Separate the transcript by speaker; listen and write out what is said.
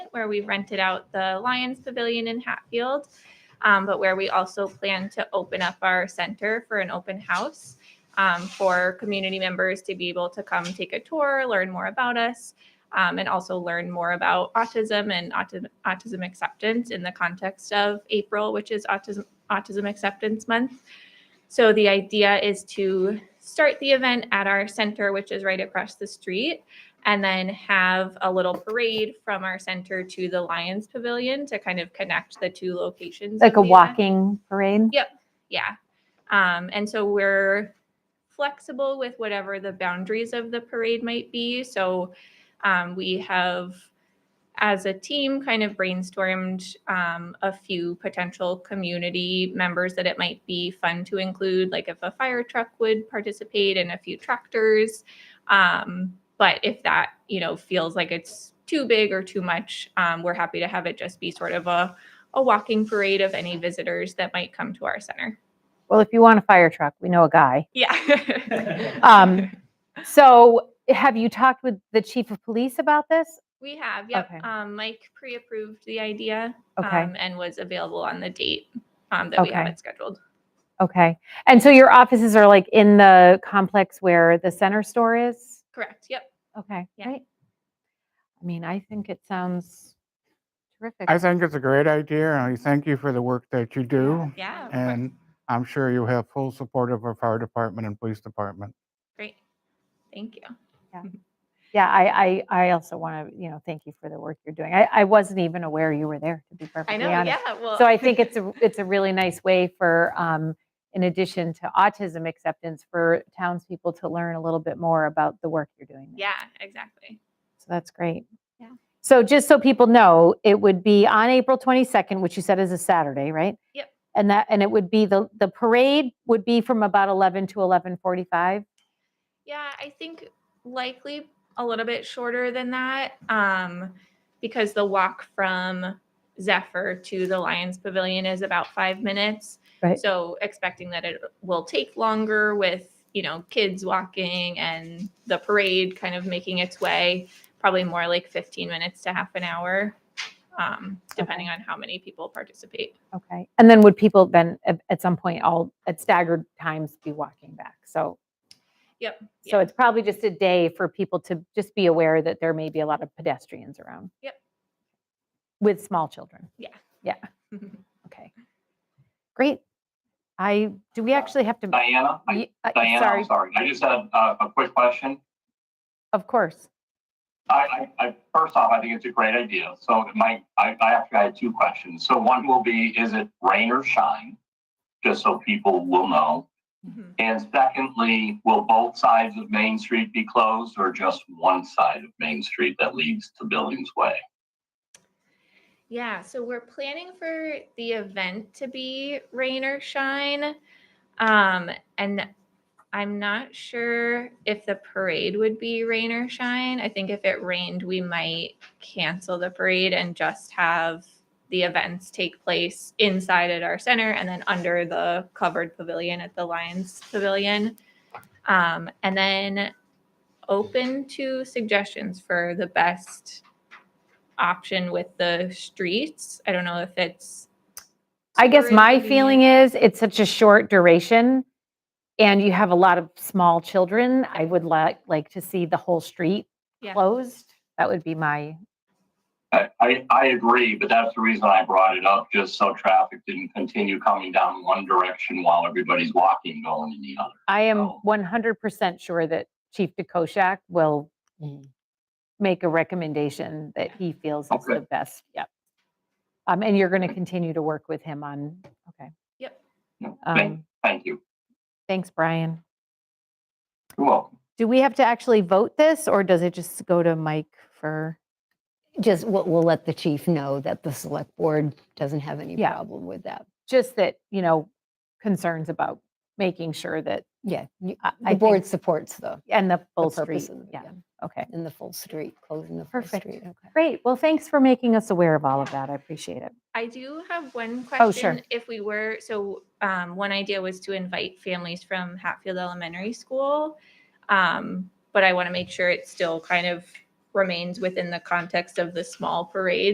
Speaker 1: where we rented out the Lions Pavilion in Hatfield, um, but where we also plan to open up our center for an open house um, for community members to be able to come take a tour, learn more about us, um, and also learn more about autism and autism, autism acceptance in the context of April, which is Autism, autism Acceptance Month. So the idea is to start the event at our center, which is right across the street, and then have a little parade from our center to the Lions Pavilion to kind of connect the two locations. of
Speaker 2: Like a
Speaker 1: the event.
Speaker 2: walking parade.
Speaker 1: Yeah. Um, and so we're flexible with whatever the boundaries of the parade might be. So um, we have, as a team, kind of brainstormed um, a few potential community members that it might be fun to include, like if a fire truck would participate and a few tractors. Um, but if that, you know, feels like it's too big or too much, um, we're happy to have it just be sort of a a walking parade of any visitors that might come to our center.
Speaker 2: Well, if you want a fire truck, we know a guy.
Speaker 1: Yeah.
Speaker 2: Um, So have you talked with the chief of police about this?
Speaker 1: we have, yep.
Speaker 2: okay.
Speaker 1: Um, Mike pre approved the idea
Speaker 2: Okay,
Speaker 1: um, and was available on the date um, that we
Speaker 2: Okay.
Speaker 1: had it scheduled.
Speaker 2: okay. And so your offices are like in the complex where the center store is?
Speaker 1: Correct. Yep.
Speaker 2: Okay,
Speaker 1: Yeah.
Speaker 2: right. I mean, I think it sounds terrific.
Speaker 3: I think it's a great idea, and I thank you for the work that you do.
Speaker 1: Yeah. of course.
Speaker 3: And I'm sure you have full support of our fire department and police department.
Speaker 1: Great. Thank you.
Speaker 2: Yeah, I, I, I also want to, you know, thank you for the work you're doing. I, I wasn't even aware you were there, to be
Speaker 1: I
Speaker 2: perfectly
Speaker 1: know.
Speaker 2: honest.
Speaker 1: Yeah. Well,
Speaker 2: So I think it's a, it's a really nice way for, um, in addition to autism acceptance, for townspeople to learn a little bit more about the work you're doing. there.
Speaker 1: yeah, exactly.
Speaker 2: So that's great.
Speaker 1: Yeah.
Speaker 2: So just so people know, it would be on April 22nd, which you said is a Saturday, right?
Speaker 1: Yep.
Speaker 2: And that, and it would be, the, the parade would be from about 11 to 11:45?
Speaker 1: Yeah, I think likely a little bit shorter than that um, because the walk from Zephyr to the Lions Pavilion is about five minutes.
Speaker 2: Right.
Speaker 1: So expecting that it will take longer with, you know, kids walking and the parade kind of making its way, probably more like 15 minutes to half an hour, um, depending on how many people participate.
Speaker 2: Okay. And then would people then at, at some point all at staggered times be walking back? So.
Speaker 1: Yep,
Speaker 2: So
Speaker 1: yeah.
Speaker 2: it's probably just a day for people to just be aware that there may be a lot of pedestrians around.
Speaker 1: Yep.
Speaker 2: With small children. Okay. Great. I, do we actually have to?
Speaker 4: Diana, I-
Speaker 2: Ye- I-
Speaker 4: Diana,
Speaker 2: Sorry,
Speaker 4: I'm sorry. I just had uh, a quick question.
Speaker 2: of course.
Speaker 4: I, I, I, first off, I think it's a great idea. So my, I, I actually had two questions. So one will be, is it rain or shine? Just so people will know.
Speaker 1: Mhm.
Speaker 4: And secondly, will both sides of Main Street be closed or just one side of Main Street that leads to Billings Way?
Speaker 1: Yeah, so we're planning for the event to be rain or shine. Um, and I'm not sure if the parade would be rain or shine. I think if it rained, we might cancel the parade and just have the events take place inside at our center and then under the covered pavilion at the Lions Pavilion. Um, and then open to suggestions for the best option with the streets. I don't know if it's.
Speaker 2: I guess
Speaker 1: super
Speaker 2: my feeling is it's such a short duration and you have a lot of small children. I would like, like to see the whole street
Speaker 1: Yeah.
Speaker 2: closed. That would be my,
Speaker 4: I, I, I agree, but that's the reason I brought it up, just so traffic didn't continue coming down one direction while everybody's walking going in the other.
Speaker 2: I am
Speaker 4: Oh.
Speaker 2: 100% sure that Chief DeKoschak will make a recommendation that he feels is
Speaker 4: Okay.
Speaker 2: the best. Yep. Um, and you're going to continue to work with him on, okay.
Speaker 1: Yep.
Speaker 4: No, Thank,
Speaker 2: Um,
Speaker 4: thank you.
Speaker 2: thanks, Brian.
Speaker 4: You're welcome.
Speaker 2: Do we have to actually vote this or does it just go to Mike for?
Speaker 5: Just, we'll, we'll let the chief know that the select board doesn't have any
Speaker 2: Yeah.
Speaker 5: problem with that.
Speaker 2: just that, you know, concerns about making sure that,
Speaker 5: Yeah, you-
Speaker 2: I- I
Speaker 5: the
Speaker 2: think-
Speaker 5: board supports the,
Speaker 2: and the
Speaker 5: the
Speaker 2: full
Speaker 5: purpose
Speaker 2: street.
Speaker 5: of, it,
Speaker 2: Yeah,
Speaker 5: yeah,
Speaker 2: okay.
Speaker 5: and the full street, closing the full
Speaker 2: Perfect.
Speaker 5: street. Okay.
Speaker 2: Great. Well, thanks for making us aware of all of that. I appreciate it.
Speaker 1: I do have one question.
Speaker 2: Oh, sure.
Speaker 1: If we were, so um, one idea was to invite families from Hatfield Elementary School. Um, but I want to make sure it still kind of remains within the context of the small parade